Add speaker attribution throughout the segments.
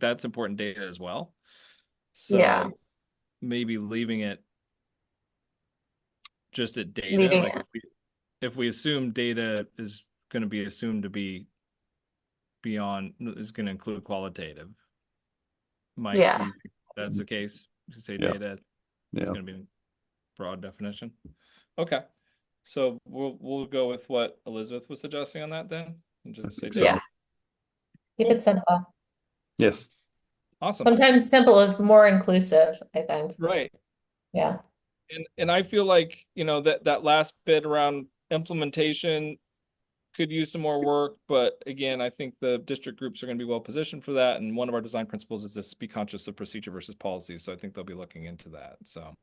Speaker 1: that's important data as well.
Speaker 2: Yeah.
Speaker 1: So maybe leaving it just at data,
Speaker 2: Leaving
Speaker 1: like
Speaker 2: it.
Speaker 1: if we, if we assume data is gonna be assumed to be beyond, is gonna include qualitative. Mike, do you
Speaker 2: Yeah.
Speaker 1: think that's the case, You say
Speaker 3: Yeah.
Speaker 1: data,
Speaker 3: Yeah.
Speaker 1: it's gonna be broad definition. Okay, so we'll, we'll go with what Elizabeth was suggesting on that then, and just say data.
Speaker 2: Yeah.
Speaker 4: Keep it simple.
Speaker 3: Yes.
Speaker 1: Awesome,
Speaker 4: Sometimes simple is more inclusive, I think.
Speaker 1: right,
Speaker 4: Yeah.
Speaker 1: And and I feel like, you know, that that last bit around implementation could use some more work, but again, I think the district groups are going to be well positioned for that. And one of our design principles is this be conscious of procedure versus policy. So I think they'll be looking into that. So.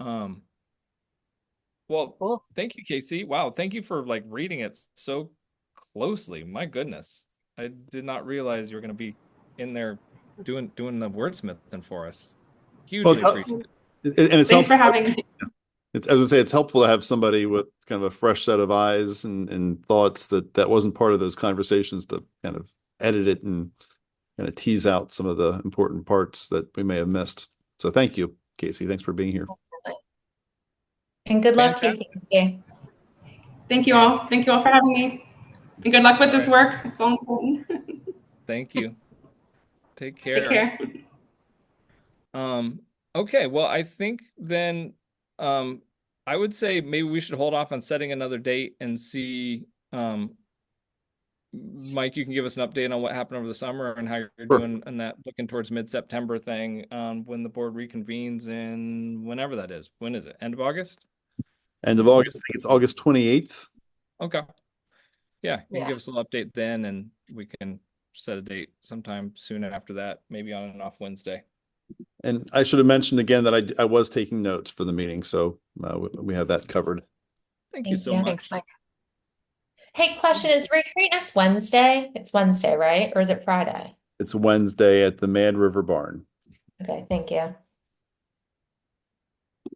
Speaker 1: Um. Well,
Speaker 5: Cool.
Speaker 1: thank you, Casey. Wow, thank you for like reading it so closely. My goodness. I did not realize you were going to be in there doing doing the wordsmithing for us. Hugely
Speaker 3: it's-
Speaker 1: appreciate it.
Speaker 3: And and it's
Speaker 2: Thanks for
Speaker 3: helpful-
Speaker 2: having me.
Speaker 3: It's, as I say, it's helpful to have somebody with kind of a fresh set of eyes and, and thoughts that that wasn't part of those conversations to kind of edit it and kind of tease out some of the important parts that we may have missed. So thank you, Casey. Thanks for being here.
Speaker 4: And good luck to you,
Speaker 1: Fantastic.
Speaker 4: Casey.
Speaker 2: Thank you all. Thank you all for having me. And good luck with this work. It's all important.
Speaker 1: Thank you. Take care.
Speaker 2: Take care.
Speaker 1: Um, okay, well, I think then um I would say maybe we should hold off on setting another date and see um Mike, you can give us an update on what happened over the summer and how you're
Speaker 3: Sure.
Speaker 1: doing and that looking towards mid-September thing, um, when the board reconvenes in whenever that is. When is it? End of August?
Speaker 3: End of August, I think it's August 28th.
Speaker 1: Okay. Yeah, you can
Speaker 4: Yeah.
Speaker 1: give us a little update then and we can set a date sometime soon after that, maybe on and off Wednesday.
Speaker 3: And I should have mentioned again that I, d- I was taking notes for the meeting. So uh, we, we have that covered.
Speaker 1: Thank you
Speaker 4: Thank
Speaker 1: so
Speaker 4: you.
Speaker 1: much.
Speaker 2: Thanks, Mike.
Speaker 4: Hey, question, is retreat next Wednesday? It's Wednesday, right? Or is it Friday?
Speaker 3: It's Wednesday at the Mad River Barn.
Speaker 4: Okay, thank you.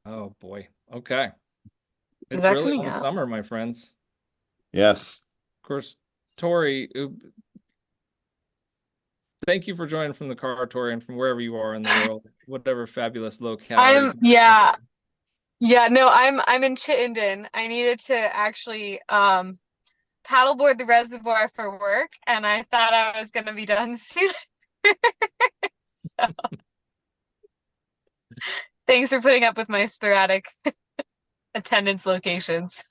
Speaker 1: Oh boy. Okay. It's
Speaker 2: that
Speaker 1: really
Speaker 2: coming
Speaker 1: all
Speaker 2: up?
Speaker 1: summer, my friends.
Speaker 3: Yes.
Speaker 1: Of course, Tori. oop- Thank you for joining from the car, Tori, and from wherever you are in the world, whatever fabulous locale. you
Speaker 5: I'm
Speaker 1: can-
Speaker 5: yeah. Yeah, no, I'm I'm in Chittenden. I needed to actually um paddleboard the reservoir for work and I thought I was gonna be done soon. So thanks for putting up with my sporadic attendance locations.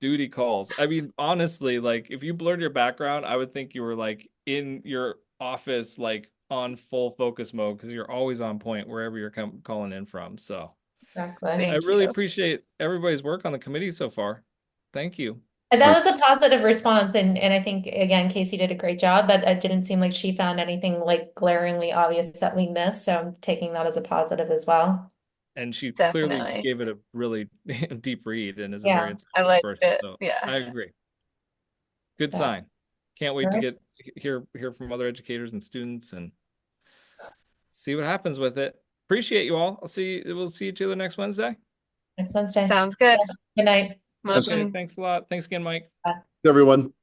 Speaker 1: Duty calls. I mean, honestly, like if you blurred your background, I would think you were like in your office, like on full focus mode, because you're always on point wherever you're com- calling in from. So
Speaker 4: Exactly.
Speaker 1: I
Speaker 5: Thank
Speaker 1: really
Speaker 5: you.
Speaker 1: appreciate everybody's work on the committee so far. Thank you.
Speaker 4: And that was a positive response and, and I think, again, Casey did a great job, but it didn't seem like she found anything like glaringly obvious that we missed, so I'm taking that as a positive as well.
Speaker 1: and she clearly
Speaker 5: Definitely.
Speaker 1: gave it a really deep read and is a
Speaker 4: Yeah,
Speaker 1: very
Speaker 5: I
Speaker 1: insightful
Speaker 5: liked
Speaker 1: person,
Speaker 5: it,
Speaker 1: so
Speaker 5: yeah.
Speaker 1: I agree. Good
Speaker 4: So-
Speaker 1: sign. Can't wait to
Speaker 4: Alright.
Speaker 1: get hear hear from other educators and students and see what happens with it. Appreciate you all. I'll see we'll see each other next Wednesday.
Speaker 4: Next Wednesday.
Speaker 5: Sounds good.
Speaker 4: Good night.
Speaker 1: Okay,
Speaker 5: Motion.
Speaker 1: thanks a lot. Thanks again, Mike.
Speaker 3: Everyone.